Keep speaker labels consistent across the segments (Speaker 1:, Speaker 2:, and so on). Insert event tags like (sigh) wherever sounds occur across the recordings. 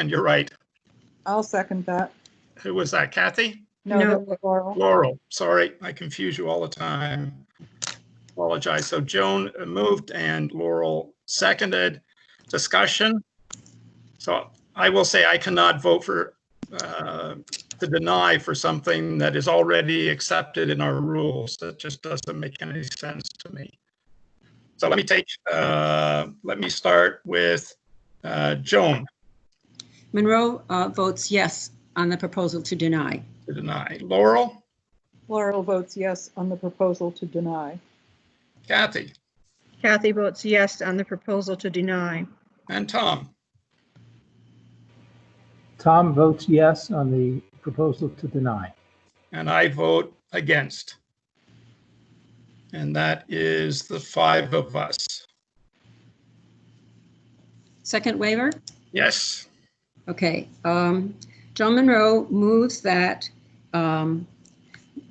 Speaker 1: And you're right.
Speaker 2: I'll second that.
Speaker 1: Who was that? Kathy?
Speaker 2: No,
Speaker 3: No.
Speaker 2: that was Laurel.
Speaker 1: Laurel. Sorry, I confuse you all the time. Apologize. So Joan moved and Laurel seconded. Discussion. So I will say I cannot vote for, uh, to deny for something that is already accepted in our rules. That just doesn't make any sense to me. So let me take, uh, let me start with uh, Joan
Speaker 3: Monroe uh, votes yes on the proposal to deny.
Speaker 1: to deny. Laurel,
Speaker 2: Laurel votes yes on the proposal to deny.
Speaker 1: Kathy,
Speaker 4: Kathy votes yes on the proposal to deny.
Speaker 1: and Tom.
Speaker 5: Tom votes yes on the proposal to deny.
Speaker 1: And I vote against. And that is the five of us.
Speaker 3: Second waiver?
Speaker 1: Yes,
Speaker 3: Okay. um, John Monroe moves that, um,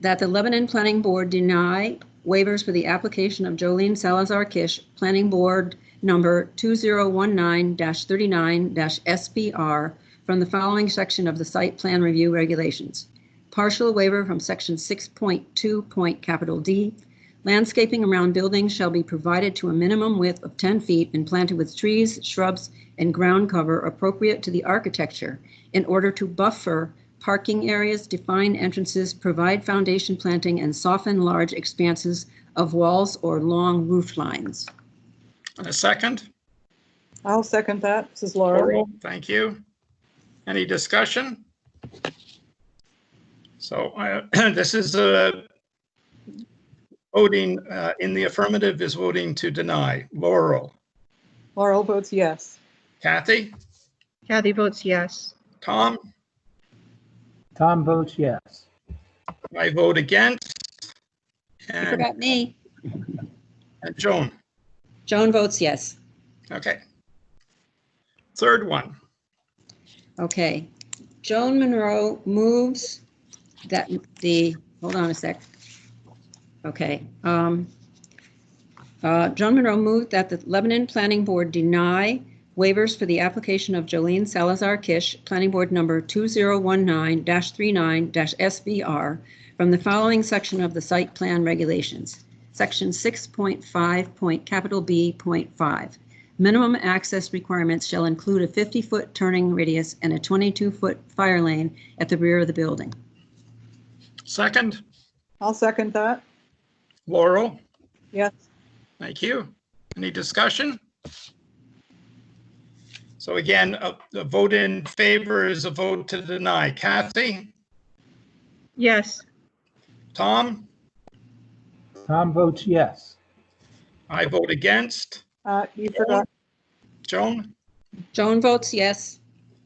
Speaker 3: that the Lebanon Planning Board deny waivers for the application of Jolene Salazar Kish, Planning Board Number 2019-39-SBR from the following section of the Site Plan Review Regulations. Partial waiver from Section 6.2. Point Capital D. Landscaping around buildings shall be provided to a minimum width of 10 feet and planted with trees, shrubs, and ground cover appropriate to the architecture in order to buffer parking areas, define entrances, provide foundation planting, and soften large expanses of walls or long roof lines.
Speaker 1: and a second.
Speaker 2: I'll second that. This is Laurel.
Speaker 1: Laurel, thank you. Any discussion? So I- (clears throat) this is a voting uh, in the affirmative is voting to deny. Laurel,
Speaker 2: Laurel votes yes.
Speaker 1: Kathy,
Speaker 4: Kathy votes yes.
Speaker 1: Tom,
Speaker 5: Tom votes yes.
Speaker 1: I vote against.
Speaker 3: You
Speaker 1: And
Speaker 3: forgot me.
Speaker 1: and Joan,
Speaker 3: Joan votes yes.
Speaker 1: okay. Third one.
Speaker 3: Okay. Joan Monroe moves that the, hold on a sec. Okay. um, uh, Joan Monroe moved that the Lebanon Planning Board deny waivers for the application of Jolene Salazar Kish, Planning Board Number 2019-39-SBR from the following section of the Site Plan Regulations, Section 6.5. Point Capital B. Point 5. Minimum access requirements shall include a 50-foot turning radius and a 22-foot fire lane at the rear of the building.
Speaker 1: Second,
Speaker 2: I'll second that.
Speaker 1: Laurel.
Speaker 2: Yes.
Speaker 1: Thank you. Any discussion? So again, a, a vote in favor is a vote to deny. Kathy,
Speaker 4: Yes,
Speaker 1: Tom,
Speaker 5: Tom votes yes.
Speaker 1: I vote against.
Speaker 2: Uh, You forgot,
Speaker 1: Joan
Speaker 3: Joan votes yes.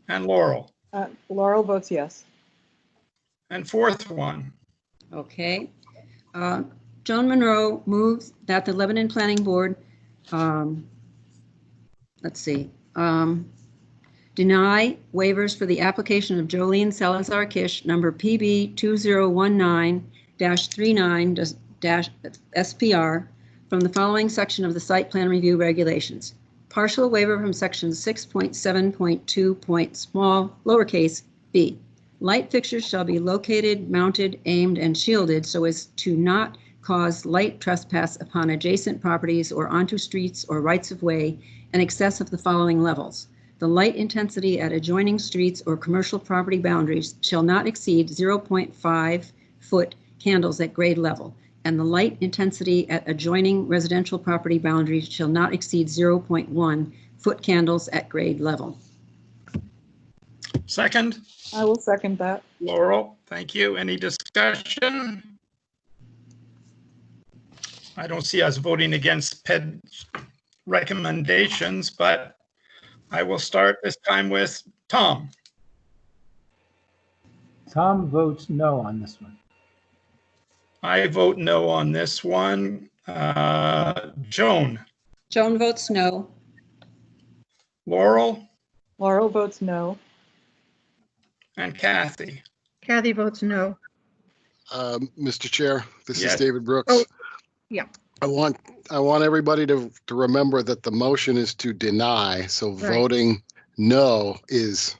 Speaker 1: and Laurel.
Speaker 2: uh, Laurel votes yes.
Speaker 1: And fourth one,
Speaker 3: Okay. Uh, Joan Monroe moves that the Lebanon Planning Board, um, let's see, um, deny waivers for the application of Jolene Salazar Kish, number PB 2019-39-SPR, from the following section of the Site Plan Review Regulations. Partial waiver from section 6.7.2. Point small lowercase b. Light fixtures shall be located, mounted, aimed, and shielded so as to not cause light trespass upon adjacent properties or onto streets or rights of way in excess of the following levels. The light intensity at adjoining streets or commercial property boundaries shall not exceed 0.5 foot candles at grade level, and the light intensity at adjoining residential property boundaries shall not exceed 0.1 foot candles at grade level.
Speaker 1: second,
Speaker 2: I will second that.
Speaker 1: Laurel, thank you. Any discussion? I don't see us voting against PED recommendations, but I will start this time with Tom.
Speaker 5: Tom votes no on this one.
Speaker 1: I vote no on this one. Uh, Joan,
Speaker 3: Joan votes no.
Speaker 1: Laurel,
Speaker 2: Laurel votes no.
Speaker 1: and Kathy.
Speaker 4: Kathy votes no.
Speaker 6: Um, Mr. Chair, this is
Speaker 1: Yes.
Speaker 6: David
Speaker 4: Oh,
Speaker 6: Brooks.
Speaker 4: yeah.
Speaker 6: I want, I want everybody to, to remember that the motion is to deny, so
Speaker 4: Right.
Speaker 6: voting no is